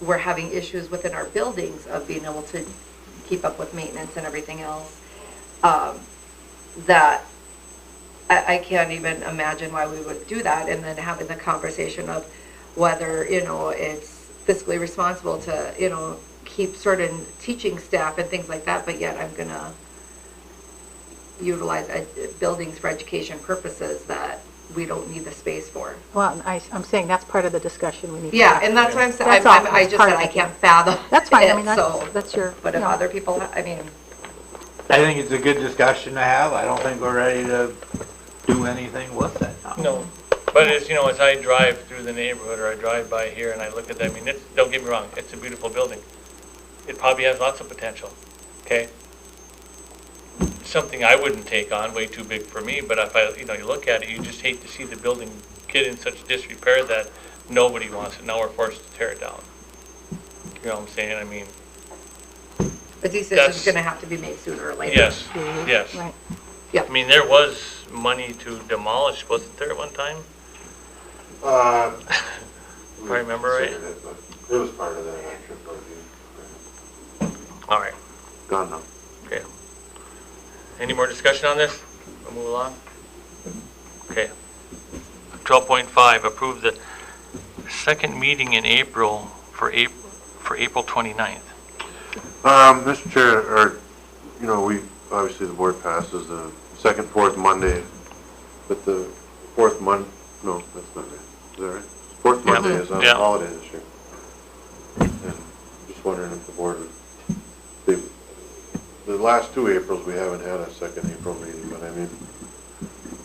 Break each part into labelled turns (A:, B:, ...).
A: we're having issues within our buildings of being able to keep up with maintenance and everything else, um, that I, I can't even imagine why we would do that, and then having the conversation of whether, you know, it's fiscally responsible to, you know, keep certain teaching staff and things like that, but yet I'm gonna utilize ed- buildings for education purposes that we don't need the space for.
B: Well, I, I'm saying that's part of the discussion we need to
A: Yeah,
B: have.
A: and that's what I'm saying,
B: That's
A: I'm- I'm-
B: all.
A: I
B: That's
A: just
B: part
A: said
B: of
A: I
B: it.
A: can't fathom
B: That's fine, I
A: it,
B: mean,
A: so-
B: that's, that's your,
A: But
B: you
A: if
B: know.
A: other people, ha- I mean,
C: I think it's a good discussion to have. I don't think we're ready to do anything with it. now.
D: No, but as, you know, as I drive through the neighborhood, or I drive by here and I look at that, I mean, it's, don't get me wrong, it's a beautiful building. It probably has lots of potential, okay? Something I wouldn't take on, way too big for me, but if I, you know, you look at it, you just hate to see the building get in such disrepair that nobody wants it, now we're forced to tear it down. You know what I'm saying, I mean,
A: a decision's
D: That's-
A: gonna have to be made sooner or later.
D: yes,
B: Mhm.
D: yes.
B: Right.
D: I mean, there was money to demolish, wasn't there at one time?
E: Uh,
D: If I remember right.
E: considered it, but It was part of that action, but you-
D: All right.
E: gone now.
D: Okay. Any more discussion on this? We'll move along. Okay. Twelve point five, approve the second meeting in April for April, for April 29th.
E: Um, Mr. Chair, or, you know, we, obviously the board passes the second, fourth Monday, but the fourth Mon, no, that's not right. Is that right? Fourth
D: Yeah.
E: Monday is on
D: Yeah.
E: holiday this year. And Just wondering if the board, would- the, the last two Aprils, we haven't had a second April meeting, but I mean,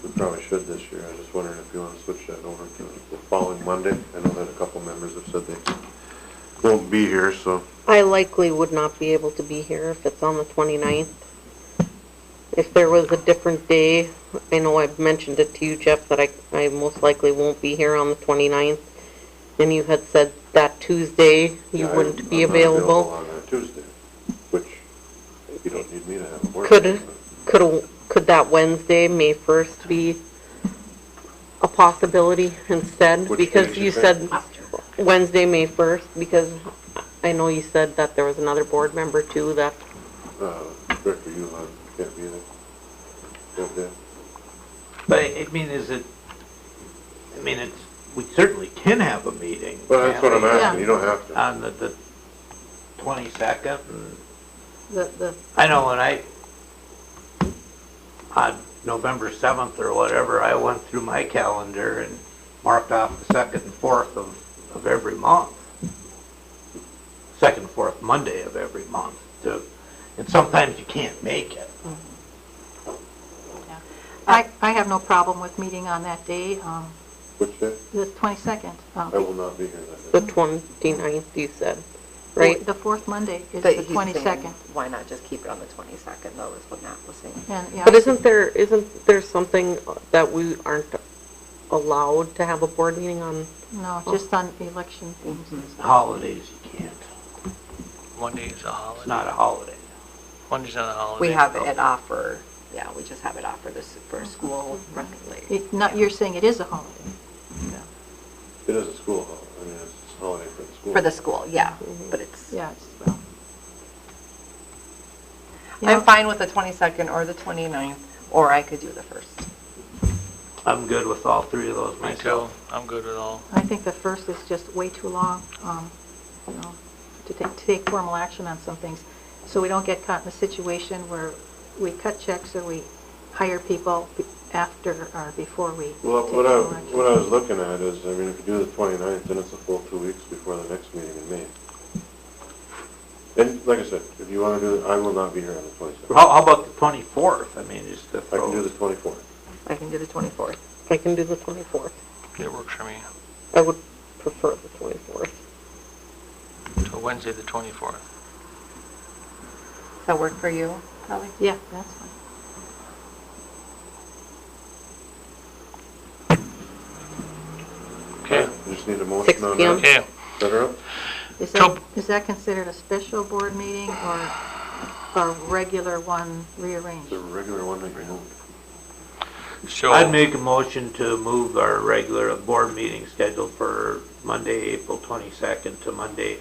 E: we probably should this year. I was just wondering if you want to switch that over to the following Monday. I know that a couple members have said they won't be here, so.
F: I likely would not be able to be here if it's on the 29th. If there was a different day, I know I've mentioned it to you, Jeff, that I, I most likely won't be here on the 29th. And you had said that Tuesday you
E: Yeah, I-
F: wouldn't be
E: I'm not
F: available.
E: on a Tuesday, which you don't need me to have a board.
F: Could-
E: meeting,
F: Could, a- could that Wednesday, May 1st, be a possibility instead?
E: Which day
F: Because
E: did you
F: you
E: say?
F: said Wednesday, May 1st, because I know you said that there was another board member too that
E: but, Uh, Director Yulon can't be there. Can't be there.
C: But I I mean, is it, I mean, it's, we certainly can have a meeting.
E: Well, that's what I'm
C: can't we?
E: asking, you don't have to.
G: Uh,
C: On the, the twenty-second,
B: The, the,
C: I know when I, on November seventh or whatever, I went through my calendar and marked off the second and fourth of, of every month. Second and fourth Monday of every month to, and sometimes you can't make it.
A: Uh,
B: I, I have no problem with meeting on that day, um,
E: Which day?
B: the 22nd. um,
E: I will not be here that
F: The
E: day.
F: 29th, you said, right?
B: The fourth Monday is
G: But
B: the
G: he's saying,
B: 22nd.
G: Why not just keep it on the 22nd, though, is what Matt was saying.
B: And, yeah,
F: But isn't there, isn't there something that we aren't allowed to have a board meeting on?
B: no, just on election
A: Mm-hmm.
B: things.
C: Holidays, you can't.
D: Monday is a
C: It's
D: holiday.
C: not a holiday.
D: Monday's not a holiday.
G: We have it off for, yeah, we just have it off for this, for school, running late.
B: Mm-hmm. It- Not, you're saying it is a holiday.
E: It is a school holiday, I mean, it's a holiday for the school.
G: for the school, yeah, but it's,
B: Mm-hmm. Yeah, it's, well. You
G: I'm
B: know,
G: fine with the 22nd or the 29th, or I could do the 1st.
C: I'm good with all three of those
D: Me
C: myself.
D: too. I'm good with all.
B: I think the first is just way too long, um, you know, to take, to take formal action on some things. So we don't get caught in a situation where we cut checks or we hire people be- after or before we take
E: Well, what I,
B: formal action.
E: what I was looking at is, I mean, if you do the 29th, then it's a full two weeks before the next meeting in May. And like I said, if you want to do it, I will not be here on the 22nd.
C: How, how about the twenty-fourth? I mean, just to
E: I can do
C: throw,
E: the 24th.
G: I can do the 24th.
F: I can do the 24th.
D: It works for me.
F: I would prefer the 24th.
D: So Wednesday, the 24th.
G: Does that work for you, Kelly?
B: Yeah, that's fine.
D: Okay.
E: I Just need a motion
F: 6
E: on
F: p.m.
E: that.
D: Okay.
E: Set her up.
B: Is
D: Nope.
B: that, is that considered a special board meeting or a regular one rearranged?
E: The regular one that you moved.
D: So.
C: I'd make a motion to move our regular board meeting scheduled for Monday, April twenty-second to Monday,